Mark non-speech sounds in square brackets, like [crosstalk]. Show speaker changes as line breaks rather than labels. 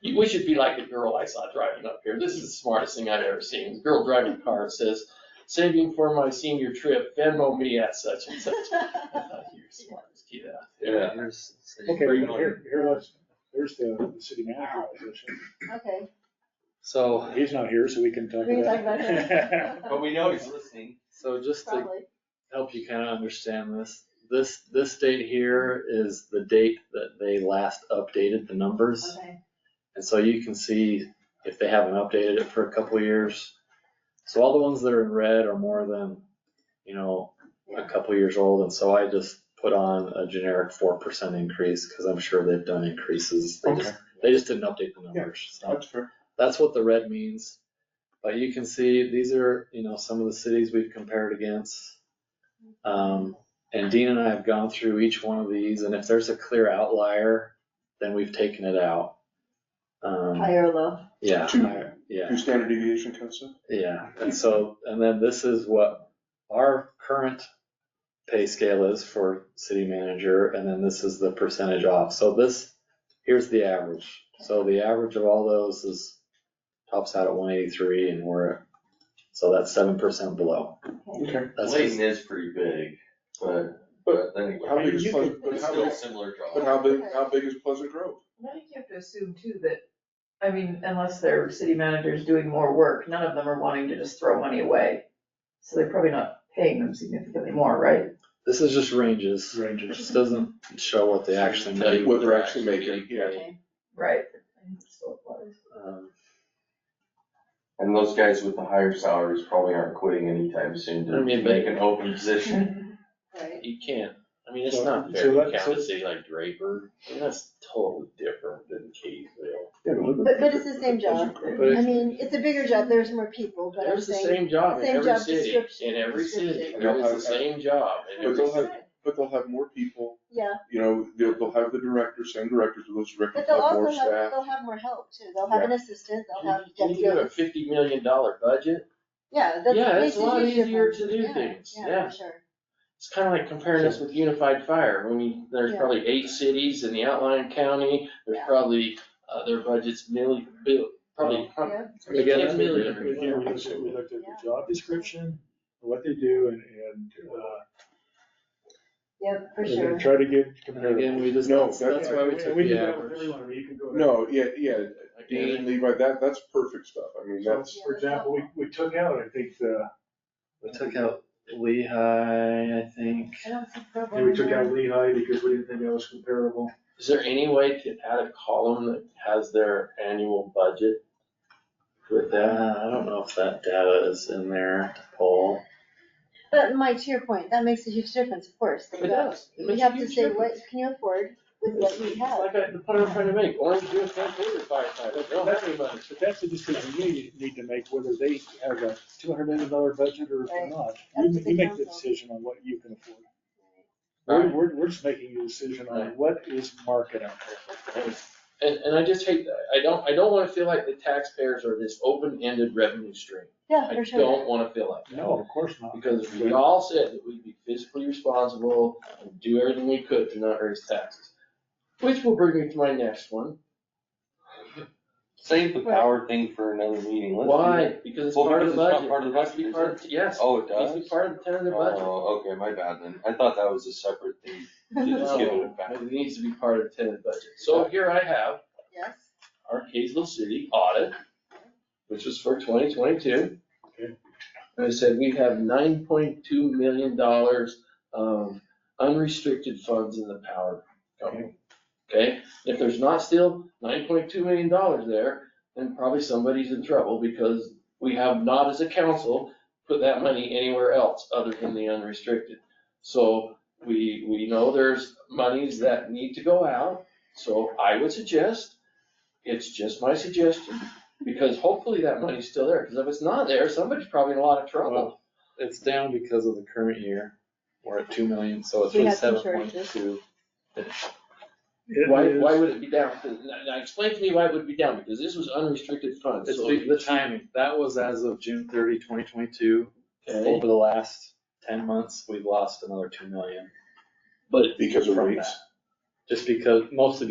You- We should be like the girl I saw driving up here. This is the smartest thing I've ever seen. The girl driving a car says, saving for my senior trip, Venmo me at such and
[laughs]
such. I thought you were smart as kid out there.
Yeah.
Here's-
Okay,
Pretty
well, here, here, let's, there's the, the city manager position.
Okay,
So,
He's not here, so we can talk about.
we can talk about
it.
[laughs]
it.
But we know he's listening.
so just to
Probably.
help you kind of understand this, this, this date here is the date that they last updated the numbers.
Okay.
And so you can see if they haven't updated it for a couple of years. So all the ones that are in red are more than, you know, a couple of years old. And so I just put on a generic four percent increase because I'm sure they've done increases. They just, they just didn't update the numbers. So
fair.
that's what the red means. But you can see, these are, you know, some of the cities we've compared against. Um, and Dean and I have gone through each one of these, and if there's a clear outlier, then we've taken it out. Um,
High or low?
yeah,
Two.
higher, yeah,
Your standard deviation cuts in.
yeah. And so, and then this is what our current pay scale is for city manager, and then this is the percentage off. So this, here's the average. So the average of all those is tops out at one eighty-three, and we're, so that's seven percent below.
Okay.
That's
Layton is pretty big, but, but anyway.
How big is
You
Pleasant, but
It's
how
still
big,
similar draw.
but how big, how big is Pleasant Grove?
I think you have to assume too that, I mean, unless their city manager's doing more work, none of them are wanting to just throw money away. So they're probably not paying them significantly more, right?
This is just ranges. It
Rangers.
just doesn't show what they actually
Tell you
make.
What they're actually making, yeah.
Okay.
Right. I think so it was.
Um,
And those guys with the higher salaries probably aren't quitting anytime soon
I
to
mean,
make
but-
an open position.
Right.
You can't, I mean, it's
So-
not
so
fair to
that-
count
so-
a city like Draper. I mean, that's totally different than Kaysville.
But, but it's the same job.
But
I mean, it's a bigger job, there's more people, but I'm
There's the
saying,
same job in
same
every
job
city,
description-
in every city.
description.
There is the same job in
But
every
they'll
city.
have, but they'll have more people,
yeah,
you know, they'll, they'll have the directors, same directors, but those directors
but they'll
have more
also have,
staff.
they'll have more help too, they'll have an assistant, they'll have
When you have a
deputies.
fifty million dollar budget,
Yeah, that's.
Yeah, it's
makes
a lot
huge
easier
difference.
to do
Yeah,
things,
Yeah,
yeah.
for sure.
it's kind of like comparing this with unified fire. When you, there's
Yeah.
probably eight cities in the outlying county, there's
Yeah.
probably, uh, their budget's million, bill, probably hun-
Yeah.
Again,
ten million.
We did, we looked at we looked at the job description, what they do and, and, uh,
Yeah, for
we're gonna
sure.
try to get
And
comparative.
again, we just,
No,
that's, that's
that-
why we
And
took
we
the
can do that with
average.
everyone, or you can go to-
No, yeah, yeah, Dean,
Again,
Levi, that, that's perfect stuff, I mean,
So,
that's,
For example, we, we took out, I think, the,
We took out Lehigh, I think.
I don't think
and we took out Lehigh because we didn't think that was comparable.
Is there any way to add a column that has their annual budget with
Uh,
that?
I don't know if that data is in there to pull.
But Mike, to your point, that makes a huge difference, of course.
It does. It
We
makes a
have to
huge
say,
difference.
what can you afford with what we
It's
have?
Like I, the point I'm trying to make, Orange County Paper Firefighter, they don't have any money.
But that's the decision we need to make, whether they have a two hundred million dollar budget or
Right.
not.
That's
You,
the
you make
council.
the decision on what you can afford. We're,
Right.
we're, we're just making a decision on
Right.
what is market out there.
And, and I just hate, that. I don't, I don't wanna feel like the taxpayers are this open-ended revenue stream.
Yeah,
I
for sure.
don't wanna feel like that.
No, of course not.
Because if we all said that we'd be fiscally responsible and do everything we could to not raise taxes. Which will bring me to my next one.
Save the
Right.
power thing for another meeting. Let's do that.
Why? Because it's
Well,
part of the
because it's not
budget.
part of the
It has to be
budget,
part of- Yes,
Oh, it
it has to be
does?
part of the tentative budget.
Oh, okay, my bad then. I thought that was a separate thing. Just give it back.
No, It needs to be part of the tentative budget. So here I have
[laughs] Yes.
our Kaysville City audit, which was for twenty twenty-two.
Okay.
And I said, we have nine point two million dollars of unrestricted funds in the power company. Okay, if there's not still nine point two million dollars there, then probably somebody's in trouble because we have not as a council put that money anywhere else other than the unrestricted. So we, we know there's monies that need to go out, so I would suggest it's just my suggestion, because hopefully that money's still there, because if it's not there, somebody's probably in a lot of trouble.
It's down because of the current year. We're at two million, so it's
We
really
had some
seven point two.
It
Why, why
is-
would it be down? Now, now explain to me why it would be down, because this was unrestricted funds,
It's
so.
the, the timing. That was as of June 30, 2022.
Okay.
Over the last ten months, we've lost another two million
But
because of
from
rates.
that. Just because, mostly